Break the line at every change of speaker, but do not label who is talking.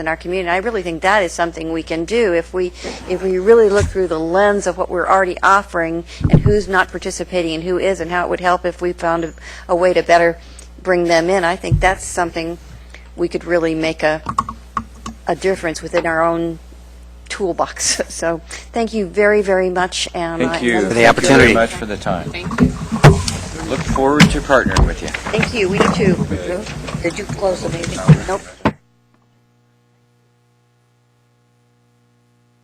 in our community. I really think that is something we can do if we, if we really look through the lens of what we're already offering and who's not participating and who is, and how it would help if we found a, a way to better bring them in. I think that's something we could really make a, a difference within our own toolbox. So thank you very, very much. and I-
Thank you.
the opportunity.
Thank you very much for the time. Thank you. Look forward to partnering with you.
Thank you, we do too.
Did you close the meeting? Nope.